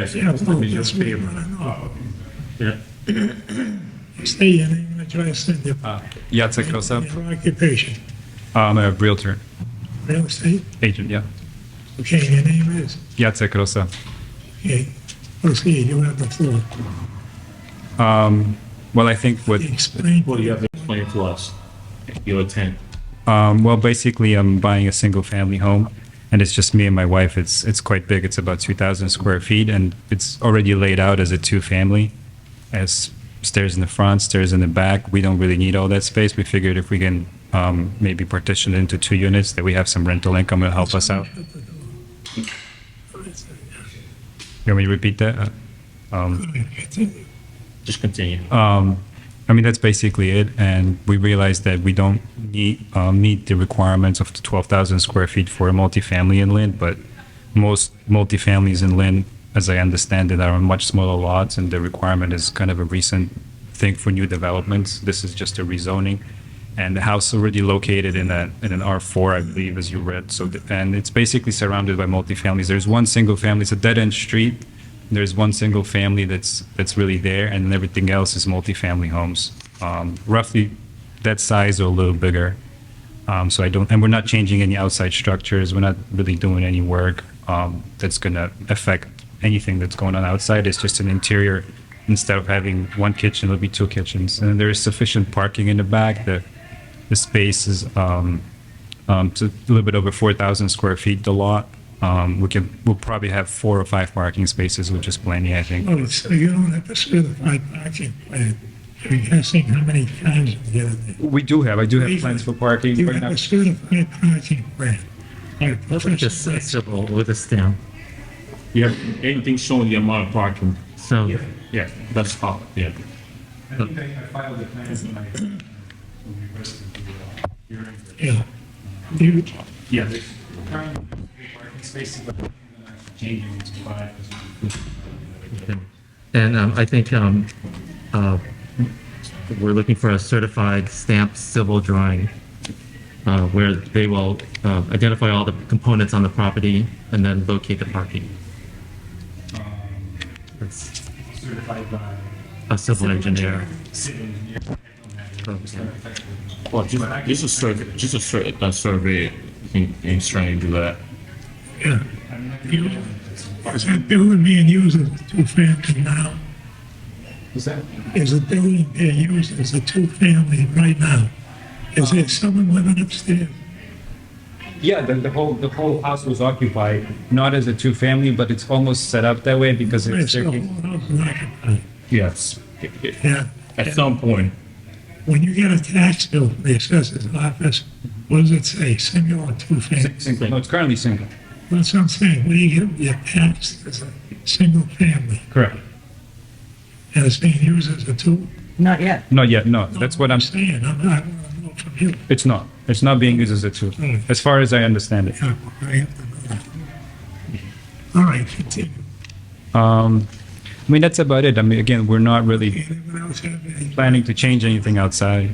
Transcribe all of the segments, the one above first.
Yes, Yeah, it's not well, in your that's me favor. running off. Yeah. Say Oh. your name and address and your, Yatsik Kosab. your occupation. I'm a realtor Real estate? agent, yeah. Okay, your name is? Yatsik Kosab. Okay, proceed, you have the floor. Well, I think what, Explain. Well, you have to explain to us your intent. um, well, basically, I'm buying a single family home and it's just me and my wife. It's, it's quite big. It's about 2,000 square feet and it's already laid out as a two family, as stairs in the front, stairs in the back. We don't really need all that space. We figured if we can um, maybe partition it into two units, that we have some rental income, it'll help us out. You want me to repeat that? Uh, Continue. Just continue. Uh, I mean, that's basically it. And we realized that we don't need, uh, meet the requirements of the 12,000 square feet for a multifamily inland, but most multifamilies inland, as I understand it, are on much smaller lots, and the requirement is kind of a recent thing for new developments. This is just a rezoning. And the house already located in a, in an R4, I believe, as you read. So, the- and it's basically surrounded by multifamilies. There's one single family, it's a dead-end street. There's one single family that's, that's really there, and then everything else is multifamily homes. Um, roughly that size or a little bigger. Um, so I don't, and we're not changing any outside structures. We're not really doing any work um, that's going to affect anything that's going on outside. It's just an interior. Instead of having one kitchen, it'll be two kitchens. And there is sufficient parking in the back. The, the space is um, um, it's a little bit over 4,000 square feet, the lot. Um, we can, we'll probably have four or five parking spaces, which is plenty, I think. Oh, so you don't have a certified parking plan. You're guessing how many times you get in there. We do have, I do have plans for parking. You but have not- a certified parking plan. By a Look professional- just accessible with a stamp. You have anything showing the amount of parking? So Yeah, that's all, yeah. I think I I filed the plans in my, when we requested the uh, hearing. Yeah. You, Yeah. there's currently three parking spaces, but I'm changing it to five. and um, I think um, uh, we're looking for a certified stamped civil drawing uh, where they will uh, identify all the components on the property and then locate the parking. Um, That's Certified by a civil engineer. city engineer. I don't have it. Okay. Well, just, just a survey, just a sur, a survey, you can, you can try and do that. yeah. You, is that building being used as a two-family now? Was that? Is a building being used as a two-family right now? Is there someone living upstairs? Yeah, the, the whole, the whole house was occupied, not as a two-family, but it's almost set up that way because Yes, it's. the whole house is occupied. Yes. Yeah. At some point, When you get a tax bill from the assessor's office, what does it say, single or two-family? Single, no, it's currently single. That's what I'm saying, when you get your tax as a single family, Correct. and it's being used as a two? Not yet. Not yet, no, that's what I'm, Saying, I'm not, I want to know from you. it's not, it's not being used as a two, Mm. as far as I understand it. Yeah, I have to know that. All right, continue. I mean, that's about it. I mean, again, we're not really Anyone else have any planning to change anything outside.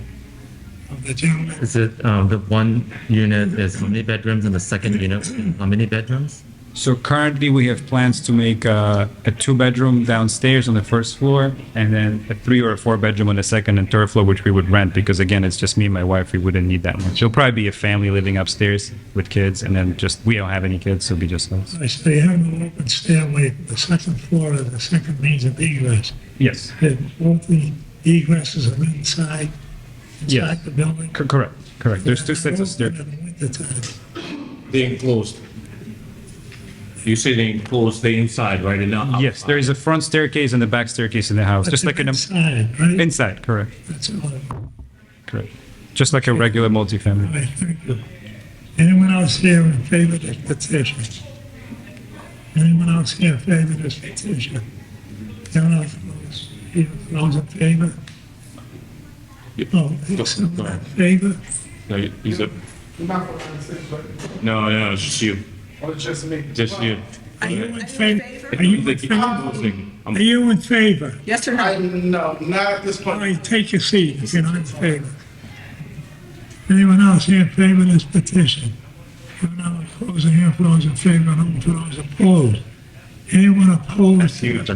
of the gentlemen? Is it um, the one unit is how many bedrooms and the second unit how many bedrooms? So currently, we have plans to make uh, a two-bedroom downstairs on the first floor, and then a three or a four-bedroom on the second and third floor, which we would rent because, again, it's just me and my wife. We wouldn't need that much. It'll probably be a family living upstairs with kids, and then just we don't have any kids, so it'll be just us. I say, have an open stairway, from the second floor to the second means of egress. Yes, Then both the egresses are inside, Yes. inside the building. C- correct, correct. There's two sets of Open stairs. in the wintertime. they enclosed. You say they enclosed, they inside, right, and now? uh, Yes, there is a front staircase and a back staircase in the house, That's just like an Inside, right? inside. Correct, That's all. correct. Just like a regular multifamily. All right, thank you. Anyone else here in favor of this petition? Anyone else here in favor of this petition? No one else those- here, those in favor? Oh, there's someone in favor? No, you- he's a, uh, no, no, it's just you, Or Oh, just me? just you. Are you in favor? Are Are you in favor? Are favor? you in favor? Yes or I, no? no, not at this All point. right, take your seat if you're not in favor. Anyone else here in favor of this petition? If not, those in here, those in favor, and those opposed. Anyone opposed?